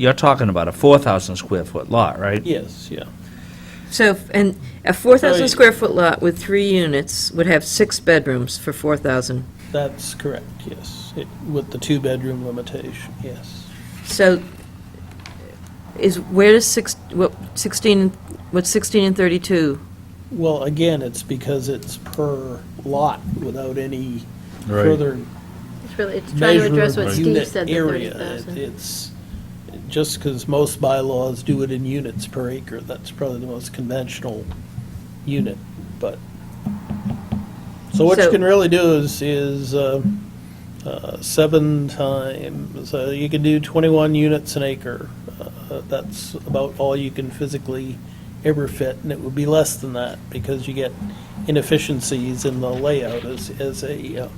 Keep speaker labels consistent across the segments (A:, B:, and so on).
A: you're talking about a 4,000 square foot lot, right?
B: Yes, yeah.
C: So, f- and a 4,000 square foot lot with three units would have six bedrooms for 4,000.
B: That's correct, yes. It- With the two-bedroom limitation, yes.
C: So is, where does six, what, 16, what's 16 and 32?
B: Well, again, it's because it's per lot without any further
D: It's really, it's trying to
B: measure
D: address what
B: of
D: Steve
B: unit
D: said, the
B: area. It-
D: 30,000.
B: It's, just because most bylaws do it in units per acre, that's probably the most conventional unit, but. So what you
C: So-
B: can really do is, is uh, uh, seven times, so you can do 21 units an acre. Uh, That's about all you can physically ever fit, and it would be less than that because you get inefficiencies in the layout as, as a uh,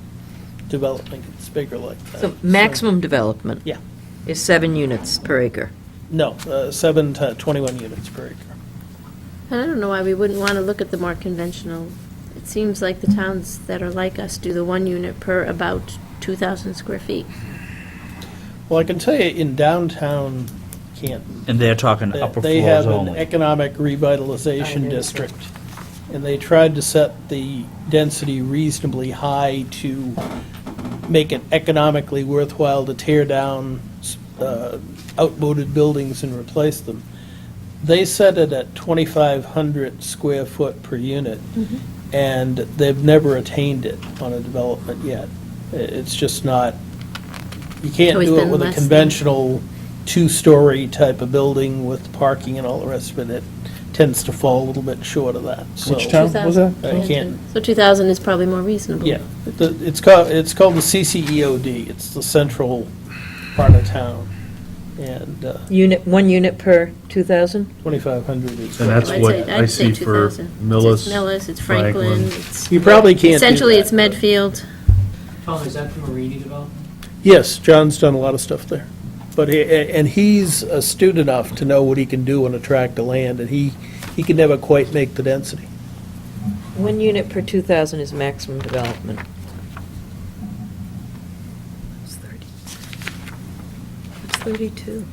B: development gets bigger like that.
C: So maximum development?
B: Uh, Yeah.
C: Is seven units per acre.
B: No, uh, seven to 21 units per acre.
D: And I don't know why we wouldn't want to look at the more conventional. It seems like the towns that are like us do the one unit per about 2,000 square feet.
B: Well, I can tell you in downtown Canton,
A: And they're talking
B: that
A: upper
B: they
A: floors
B: have an
A: only.
B: economic
C: Oh,
B: revitalization district, and they tried to set the density reasonably high to make it economically worthwhile to tear down uh, outmoded buildings and replace them. They set it at 2,500 square foot per unit,
D: Mm-hmm.
B: and they've never attained it on a development yet. I- It's just not, you can't
D: always
B: do it
D: been
B: with a
D: less than-
B: conventional two-story type of building with parking and all the rest of it. It tends to fall a little bit short of that, so.
E: Which town? was that?
B: I can't-
D: So 2,000 is probably more reasonable.
B: Yeah, the- it's called, it's called the CCEOD, it's the central part of town, and uh,
C: Unit, one unit per 2,000?
B: 2,500 is.
E: And that's
D: I'd
E: what
D: say-
E: I
D: I'd say
E: see for
D: 2,000.
E: Millis,
D: It's Millis, it's Franklin,
E: Franklin.
D: it's.
B: You probably can't do
D: Essentially,
B: that,
D: it's Medfield.
F: Tom, is that the Marini development?
B: Yes, John's done a lot of stuff there, but, he- and he's astute enough to know what he can do on a tract of land, and he, he can never quite make the density.
C: One unit per 2,000 is maximum development. It's 30. It's 32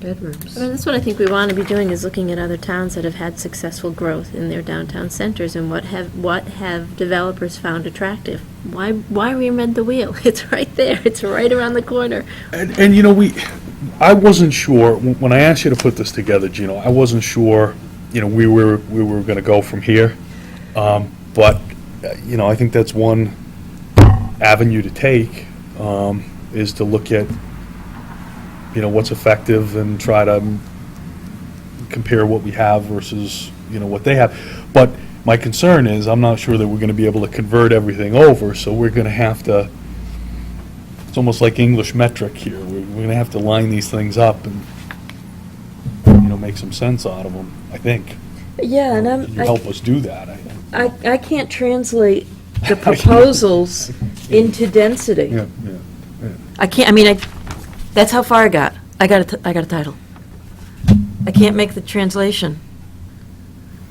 C: bedrooms.
D: I mean, that's what I think we want to be doing, is looking at other towns that have had successful growth in their downtown centers and what have, what have developers found attractive? Why, why reinvent the wheel? It's right there, it's right around the corner.
E: And, and you know, we, I wasn't sure, when when I asked you to put this together, Gino, I wasn't sure, you know, we were, we were gonna go from here. Um, but, uh, you know, I think that's one avenue to take, um, is to look at, you know, what's effective and try to um, compare what we have versus, you know, what they have. But my concern is, I'm not sure that we're gonna be able to convert everything over, so we're gonna have to, it's almost like English metric here. We're, we're gonna have to line these things up and, you know, make some sense out of them, I think.
C: Yeah, and
E: Can
C: I'm,
E: you
C: I-
E: help us do that? I-
C: I, I can't translate the proposals into density.
E: Yeah, yeah.
C: I can't, I mean, I, that's how far I got. I got a, t- I got a title. I can't make the translation.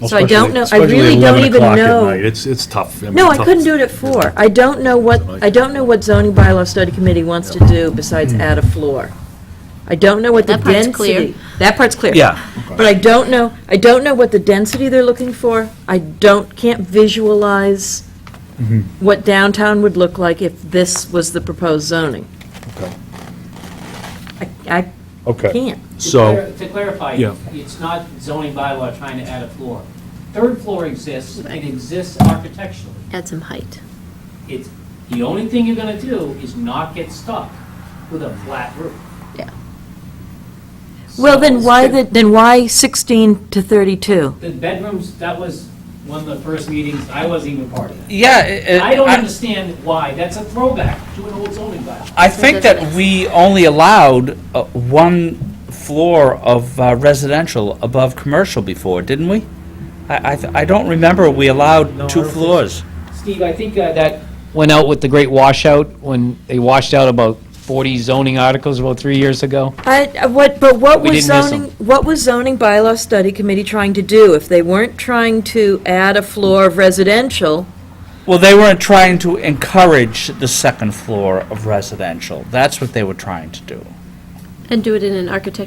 C: So I don't know- I
E: Especially-
C: really
E: especially at
C: don't
E: 11
C: even
E: o'clock at
C: know.
E: night. It's, it's tough. mean,
C: No, I
E: tough.
C: couldn't do it at four. I don't know what, I don't know what zoning bylaw study committee wants to do besides
E: Hmm.
C: add a floor. I don't know what the
D: That part's clear.
C: density. That part's clear.
A: Yeah,
C: But I don't know, I don't know what the density they're looking for. I don't, can't visualize
E: Mm-hmm.
C: what downtown would look like if this was the proposed zoning.
E: Okay.
C: I, I
E: Okay,
C: can't.
F: To clar-
E: so,
F: To clarify,
E: Yeah.
F: it's not zoning bylaw trying to add a floor. Third floor exists, it exists architecturally.
D: Add some height.
F: It's, the only thing you're gonna do is not get stuck with a flat roof.
D: Yeah.
C: Well, then
F: So-
C: why, the then why 16 to 32?
F: The bedrooms, that was one of the first meetings, I wasn't even part of that.
G: Yeah, it-
F: I don't
G: I,
F: understand why, that's a throwback to an old zoning bylaw.
G: I think that we only allowed uh, one floor of uh, residential above commercial before, didn't we? I, I, th- I don't remember we
F: No, I
G: allowed two
F: don't think so.
G: floors.
F: Steve, I think uh, that
H: went out with the great washout when they washed out about 40 zoning articles about three years ago.
C: I, I- what, but what
H: We
C: was
H: didn't miss
C: zoning, what was zoning bylaw study committee trying to do? If they weren't trying to add a floor of residential,
G: Well, they weren't trying to encourage the second floor of residential. That's what they were trying to do.
D: And do it in an architectural